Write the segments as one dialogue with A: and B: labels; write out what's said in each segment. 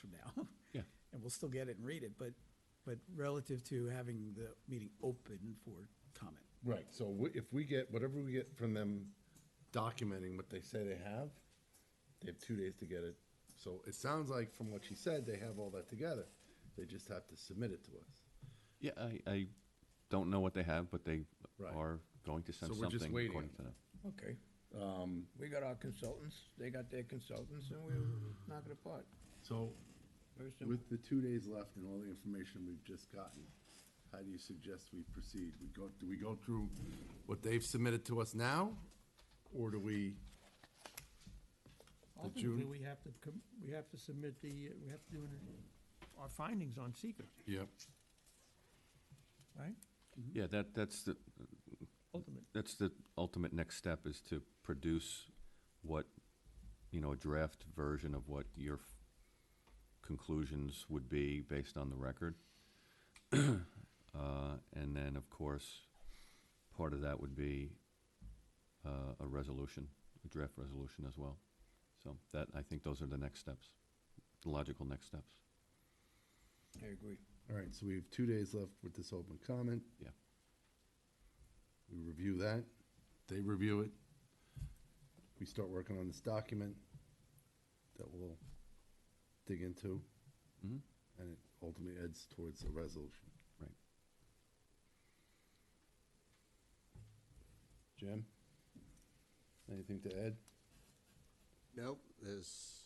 A: from now.
B: Yeah.
A: And we'll still get it and read it, but, but relative to having the meeting open for comment.
C: Right, so we- if we get, whatever we get from them documenting what they say they have, they have two days to get it. So it sounds like from what she said, they have all that together. They just have to submit it to us.
B: Yeah, I, I don't know what they have, but they
C: Right.
B: are going to send
C: So we're just
B: something
C: waiting.
B: according to them.
D: Okay.
C: Um,
D: We got our consultants, they got their consultants, and we'll knock it apart.
C: So
D: Very simple.
C: with the two days left and all the information we've just gotten, how do you suggest we proceed? We go, do we go through what they've submitted to us now? Or do we, The
E: Ultimately,
C: June-
E: we have to, com- we have to submit the, uh, we have to do an- our findings on seeker,
C: yep,
E: right?
C: Mm-hmm.
B: Yeah, that, that's the,
E: Ultimately.
B: that's the ultimate next step is to produce what, you know, a draft version of what your f- conclusions would be based on the record. Uh, and then, of course, part of that would be, uh, a resolution, a draft resolution as well. So that, I think those are the next steps, the logical next steps.
D: I agree.
C: all right, so we have two days left with this open comment.
B: Yeah.
C: We review that, they review it. We start working on this document that we'll dig into, Mm-hmm.
B: Mhm.
C: and it ultimately heads towards a resolution.
B: Right.
C: Jim? Anything to add?
F: Nope, there's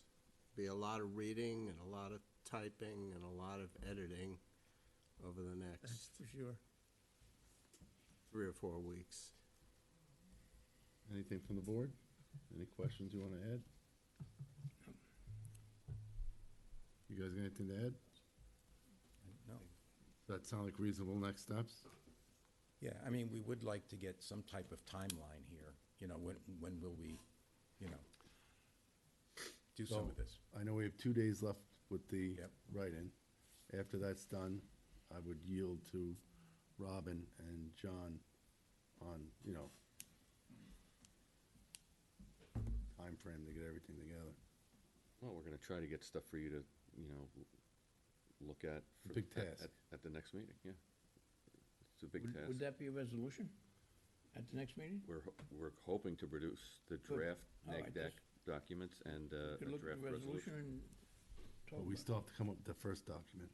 F: be a lot of reading and a lot of typing and a lot of editing over the
E: That's
F: next
E: for sure.
F: three or four weeks.
C: Anything from the board? Any questions you want to add? You guys got anything to add?
D: No.
C: Does that sound like reasonable next steps?
G: Yeah, I mean, we would like to get some type of timeline here, you know, when, when will we, you know, do some of
C: So,
G: this?
C: I know we have two days left with the
G: Yep.
C: write-in. After that's done, I would yield to Robin and John on, you know, time frame to get everything together.
B: Well, we're gonna try to get stuff for you to, you know, look at. for-
C: Big
B: at-
C: task.
B: At, at the next meeting, yeah. It's a big
D: Would would
B: task.
D: that be a resolution at the next meeting?
B: We're, ho- we're hoping to produce the draft
D: All
B: neg
D: right,
B: deck
D: just-
B: documents and, uh,
D: You
B: a
D: Could look at
B: draft
D: the resolution
B: resolution.
D: and talk
C: But we
D: about
C: still have to come up with the first document,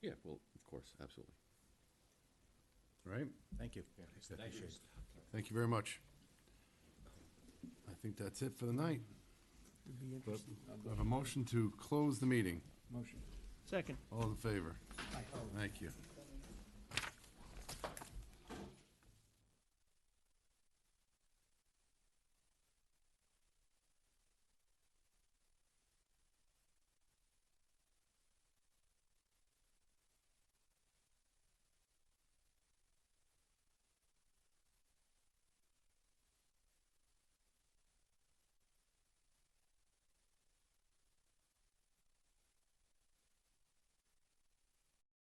B: Yeah, well, of course, absolutely.
C: right?
G: Thank you. Appreciate it.
C: Thank you very much. I think that's it for the night.
E: It'd be
C: But
E: interesting.
C: I have a motion to close the meeting.
D: it. Motion.
E: Second.
C: All in favor? Thank you.